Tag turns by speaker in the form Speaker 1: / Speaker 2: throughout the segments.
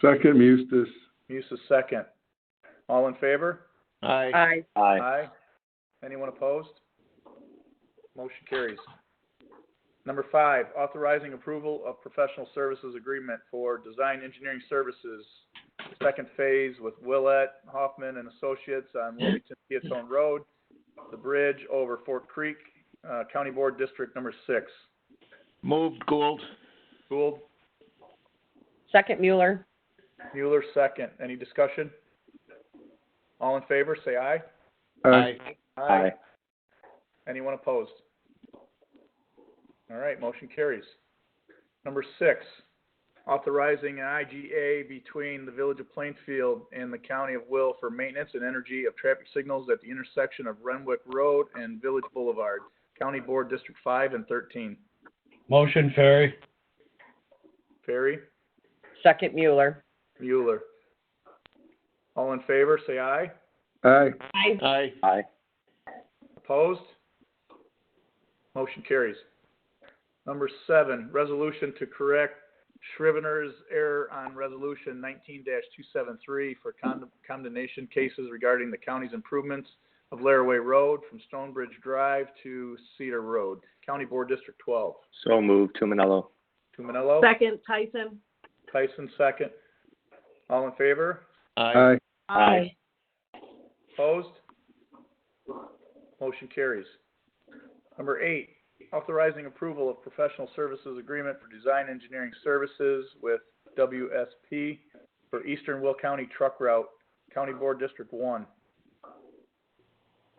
Speaker 1: Second, Mustis.
Speaker 2: Musis second. All in favor?
Speaker 3: Aye.
Speaker 4: Aye.
Speaker 5: Aye.
Speaker 2: Aye. Anyone opposed? Motion carries. Number five, authorizing approval of professional services agreement for design engineering services, second phase with Willett Hoffman and Associates on Wilmington Peatone Road, the bridge over Fort Creek, uh, County Board District Number Six.
Speaker 3: Moved Gould.
Speaker 2: Gould,
Speaker 4: Second Mueller.
Speaker 2: Mueller, second. Any discussion? All in favor, say aye.
Speaker 3: Aye.
Speaker 5: Aye.
Speaker 2: Anyone opposed? All right, motion carries. Number six, authorizing an IGA between the Village of Plainfield and the County of Will for maintenance and energy of traffic signals at the intersection of Renwick Road and Village Boulevard, County Board District Five and Thirteen.
Speaker 6: Motion, Ferry.
Speaker 2: Ferry,
Speaker 4: Second Mueller.
Speaker 2: Mueller. All in favor, say aye.
Speaker 1: Aye.
Speaker 4: Aye.
Speaker 3: Aye.
Speaker 5: Aye.
Speaker 2: Opposed? Motion carries. Number seven, resolution to correct Scrivener's error on resolution nineteen two seven three for con- condemnation cases regarding the county's improvements of Laraway Road from Stonebridge Drive to Cedar Road, County Board District twelve.
Speaker 5: So moved, Tumanello.
Speaker 2: Tumanello?
Speaker 4: Second Tyson.
Speaker 2: Tyson, second. All in favor?
Speaker 3: Aye.
Speaker 1: Aye.
Speaker 5: Aye.
Speaker 2: Opposed? Motion carries. Number eight, authorizing approval of professional services agreement for design engineering services with WSP for Eastern Will County Truck Route, County Board District One.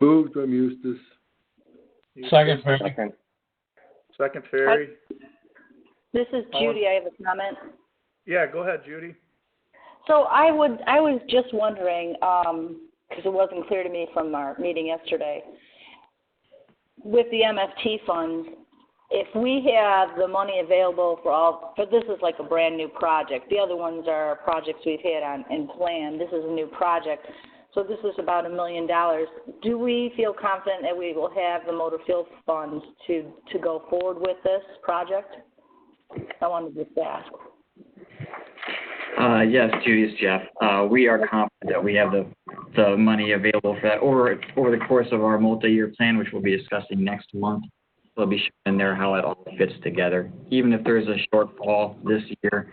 Speaker 1: Moved by Mustis.
Speaker 6: Second, Ferry.
Speaker 5: Second.
Speaker 2: Second, Ferry.
Speaker 7: This is
Speaker 2: All in-
Speaker 7: Judy. I have a comment.
Speaker 2: Yeah, go ahead, Judy.
Speaker 7: So I would, I was just wondering, um, because it wasn't clear to me from our meeting yesterday, with the MFT funds, if we have the money available for all, but this is like a brand new project. The other ones are projects we've had on and planned. This is a new project. So this is about a million dollars. Do we feel confident that we will have the motor fuel funds to, to go forward with this project? I wanted to just ask.
Speaker 8: Uh, yes, Judy, it's Jeff. Uh, we are confident that we have the, the money available for that over, over the course of our multi-year plan, which we'll be discussing next month. We'll be showing there how it all fits together. Even if there is a shortfall this year,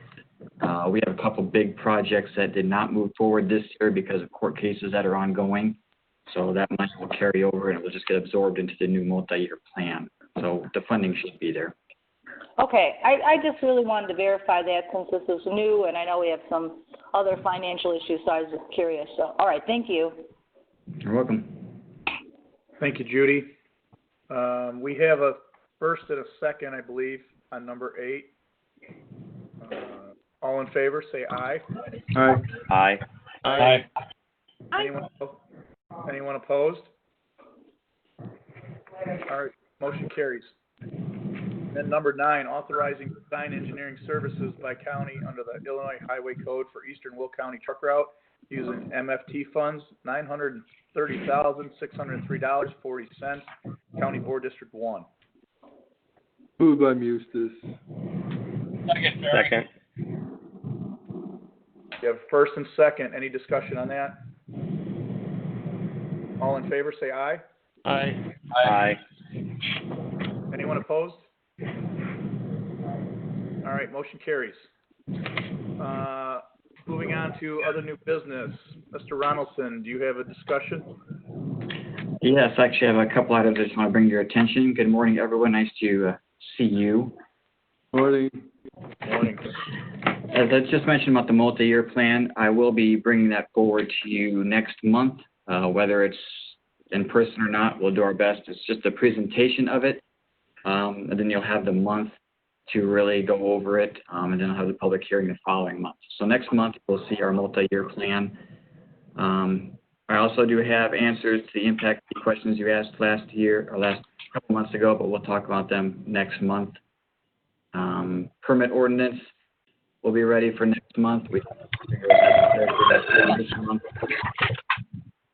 Speaker 8: uh, we have a couple big projects that did not move forward this year because of court cases that are ongoing. So that money will carry over and it will just get absorbed into the new multi-year plan. So the funding should be there.
Speaker 7: Okay, I, I just really wanted to verify that since this is new and I know we have some other financial issues, so I was just curious. So, all right, thank you.
Speaker 8: You're welcome.
Speaker 2: Thank you, Judy. Um, we have a first and a second, I believe, on number eight. Uh, All in favor, say aye.
Speaker 1: Aye.
Speaker 5: Aye.
Speaker 6: Aye.
Speaker 2: Anyone, anyone opposed? All right, motion carries. Then number nine, authorizing design engineering services by county under the Illinois Highway Code for Eastern Will County Truck Route using MFT funds, nine hundred and thirty thousand, six hundred and three dollars, forty cents, County Board District One.
Speaker 1: Moved by Mustis.
Speaker 6: Second, Ferry.
Speaker 5: Second.
Speaker 2: You have first and second, any discussion on that? All in favor, say aye.
Speaker 3: Aye.
Speaker 5: Aye.
Speaker 2: Anyone opposed? All right, motion carries. Uh, Moving on to other new business. Mr. Ronaldson, do you have a discussion?
Speaker 8: Yes, I actually have a couple items I just want to bring to your attention. Good morning, everyone. Nice to uh, see you.
Speaker 1: Morning.
Speaker 2: Morning.
Speaker 8: As I just mentioned about the multi-year plan, I will be bringing that forward to you next month. Uh, whether it's in person or not, we'll do our best. It's just a presentation of it. Um, and then you'll have the month to really go over it. Um, and then I'll have the public hearing the following month. So next month, we'll see our multi-year plan. Um, I also do have answers to the impact fee questions you asked last year or last couple months ago, but we'll talk about them next month. Um, permit ordinance, we will be ready for next month. We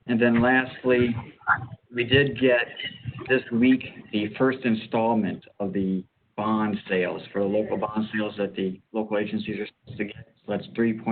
Speaker 8: and then lastly, we did get this week the first installment of the bond sales for the local bond sales that the local agencies are supposed to get. So that's three point